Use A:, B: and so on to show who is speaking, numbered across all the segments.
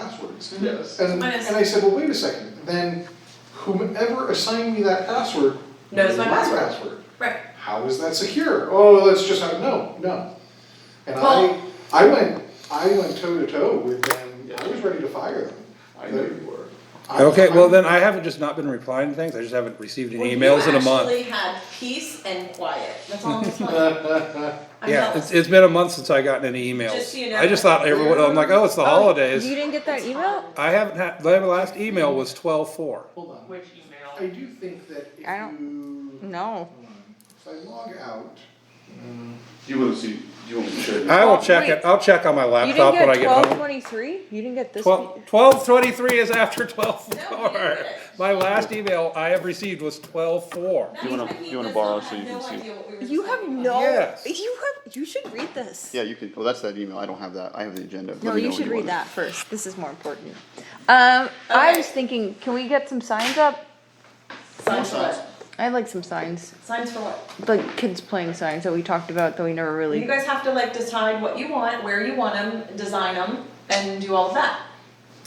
A: passwords.
B: Yes.
A: And,
C: Mine is-
A: and I said, well, wait a second, then whomever assigned me that password.
C: Knows my password.
A: password.
C: Right.
A: How is that secure? Oh, that's just, how- no, no. And I,
C: Well-
A: I went, I went toe to toe with them, I was ready to fire them.
B: I know you were.
A: I-
D: Okay, well
A: I'm-
D: then I haven't just not been replying to things, I just haven't received
C: Well,
D: any
C: you
D: emails in a month.
C: Actually had peace and quiet, that's all I'm telling you. I'm
D: Yeah,
C: jealous.
D: it's, it's been a month since I gotten any
C: Just so you
D: emails.
C: know.
D: I just thought everyone, I'm like, oh, it's the
E: You
D: holidays.
E: didn't get that email?
D: I haven't had, the last email was twelve four.
A: Hold on,
F: Which
A: I
F: email?
A: do think that if
E: I don't-
A: you,
E: No.
A: hold on. if I log out,
B: Mm-hmm. You wanna see, you want me to show you?
D: I will
E: Well,
D: check it,
E: wait.
D: I'll check on my
E: You
D: laptop
E: didn't
D: when I
E: get
D: get
E: twelve
D: home.
E: twenty-three? You didn't get this?
D: Twelve, twelve twenty-three is after twelve
C: No, you didn't
D: four.
C: get it.
D: My last email I have received was twelve four.
C: That
G: You wanna-
C: means that he
G: you wanna
C: does
G: borrow
C: not
G: so you
C: have
G: can
C: no
G: see?
C: idea what we were
E: You have
C: talking
E: no,
C: about.
D: Yes.
E: you have, you should read this.
G: Yeah, you can, well, that's that email, I don't have that, I have the agenda. Let
E: No,
G: me know
E: you
G: when
E: should
G: want
E: read
G: it.
E: that first. This is more important. Um, I
C: Okay.
E: was thinking, can we get some signs up?
C: Signs for what?
E: I'd like some signs,
C: Signs for what?
E: like kids playing signs that we talked about that we never really.
C: You guys have to like decide what you want, where you want them, design them, and do all of that.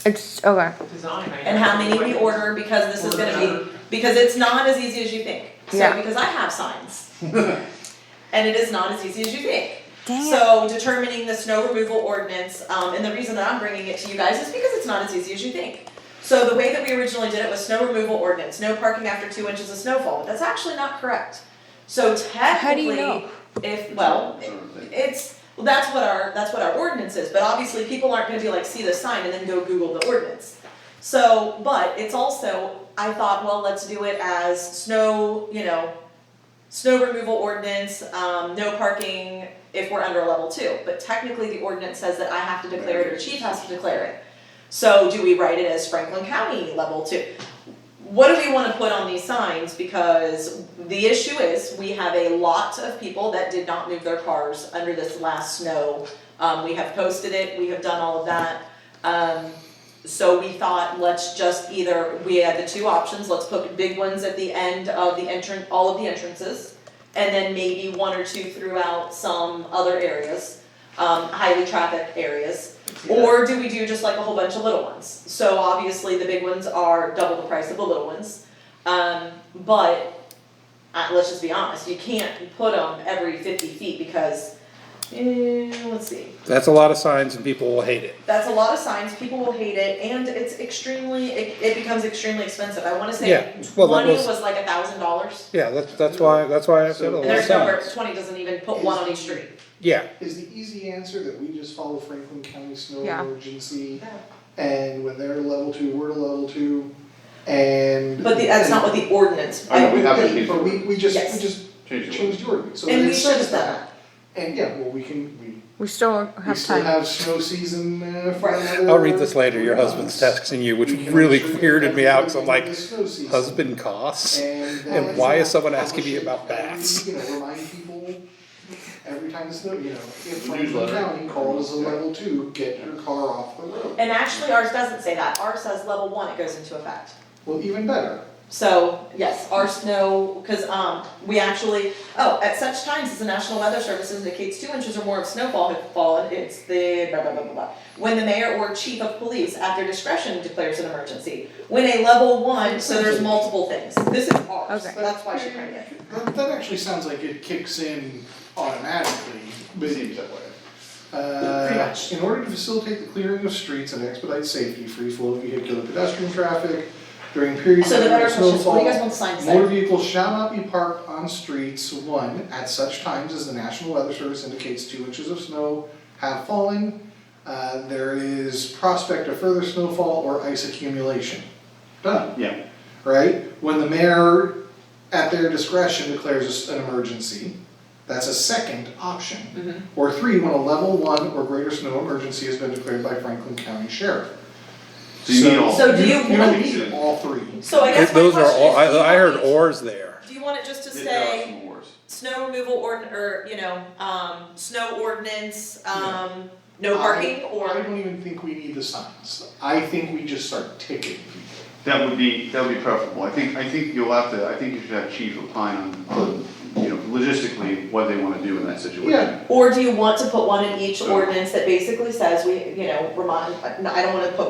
E: It's, okay,
F: Design. I
C: and how many we
F: guess.
C: order because this is gonna be, because it's not as easy as you think. So,
E: Yeah.
C: because I have signs. And it is not as easy as you think.
E: Dang it.
C: So determining the snow removal ordinance, um, and the reason that I'm bringing it to you guys is because it's not as easy as you think. So the way that we originally did it was snow removal ordinance, no parking after two inches of snowfall, but that's actually not correct. So
E: do you
C: technically,
E: know?
C: if, well, it- it's, well, that's what our, that's what our ordinance is, but obviously people aren't gonna be like, see the sign and then go Google the ordinance. So, but it's also, I thought, well, let's do it as snow, you know, snow removal ordinance, um, no parking if we're under level two. But technically, the ordinance says that I have to declare it or chief has to declare it. So do we write it as Franklin County level two? What do we wanna put on these signs? Because the issue is, we have a lot of people that did not move their cars under this last snow. Um, we have posted it, we have done all of that. Um, so we thought, let's just either, we had the two options, let's put big ones at the end of the entrance, all of the entrances. And then maybe one or two throughout some other areas, um, highly trafficked areas. Or do we do just like a whole bunch of little ones? So obviously the big ones are double the price of the little ones. Um, but, uh, let's just be honest, you can't put them every fifty feet because, eh, let's see.
D: That's a lot of signs and people will hate it.
C: That's a lot of signs, people will hate it, and it's extremely, it, it becomes extremely expensive, I wanna
D: Yeah,
C: say
D: well, that
C: twenty
D: was-
C: was like a thousand dollars.
D: Yeah, that's, that's why, that's why I said
B: So-
D: a lot
C: And
D: of
C: there's number,
D: signs.
C: twenty doesn't even put one on each street.
D: Yeah,
A: is the easy answer that we just follow Franklin County Snow
E: Yeah.
A: Emergency? And when they're level two, we're to level two, and.
C: But the, that's not what the ordinance,
B: I know,
C: I,
B: we have to
A: But
B: change
A: but we,
B: it.
A: we just, we
C: Yes.
A: just
B: Change it.
A: changed the ordinance, so
C: and
A: then
C: we
A: it
C: should have
A: says
C: done
A: that,
C: that,
A: and yeah, well, we can, we,
E: we still
A: we
E: have
A: still
E: time.
A: have snow season, uh, for
C: Right.
A: another.
D: I'll read this later, your
A: three
D: husband's
A: months.
D: texting you, which
A: We can
D: really
A: make sure that
D: weirded me out, so I'm
A: everybody
D: like,
A: in the snow season-
D: husband costs?
A: And
D: And
A: that
D: why is
A: not
D: someone asking me
A: publishing
D: about
A: every-
D: bats?
A: You know, remind people every time the snow, you know, if
B: The
A: Franklin
B: newsletter.
A: County calls a level two, get your car off the road.
C: and actually ours doesn't say that, ours says level one, it goes into effect.
A: Well, even better,
C: So, yes, our snow, cause um, we actually, oh, at such times as the National Weather Service indicates two inches or more of snowfall had fallen, it's the blah blah blah blah blah. When the mayor or chief of police at their discretion declares an emergency, when a level one, so there's multiple things, this is ours,
E: Okay.
C: that's why she printed it.
A: that, that actually sounds like it kicks in automatically, but
B: Seems that way.
A: Uh, in order to facilitate the clearing of streets and expedite safety, free flow of vehicular pedestrian traffic during periods
C: So
A: of
C: the better question is, what do you guys
A: snowfall.
C: want the sign to
A: Motor
C: say?
A: vehicles shall not be parked on streets, one, at such times as the National Weather Service indicates two inches of snow have fallen. Uh, there is prospect of further snowfall or ice accumulation. Done,
G: Yeah,
A: right? When the mayor, at their discretion, declares a s- an emergency, that's a second option.
C: Mhm.
A: Or three, when a level one or greater snow emergency has been declared by Franklin County Sheriff.
B: So you need all.
C: So do you
A: You
C: want-
A: don't need all three.
C: So I guess my
D: Those are
C: question
D: all,
C: is,
D: I,
C: do you
D: I heard
C: want it-
D: ors there.
C: Do you want it just to
B: There- there are
C: say?
B: some wars.
C: snow removal ord, or, you know, um, snow ordinance, um, no parking,
A: I
C: or,
A: don't even think we need the signs. I think we just start ticketing people.
G: that would be, that would be preferable, I think, I think you'll have to, I think you should have chief opine on- on, you know, logistically, what they wanna do in that situation.
A: Yeah.
C: or do you want to put one in each ordinance that basically says we, you know, remind, I don't wanna put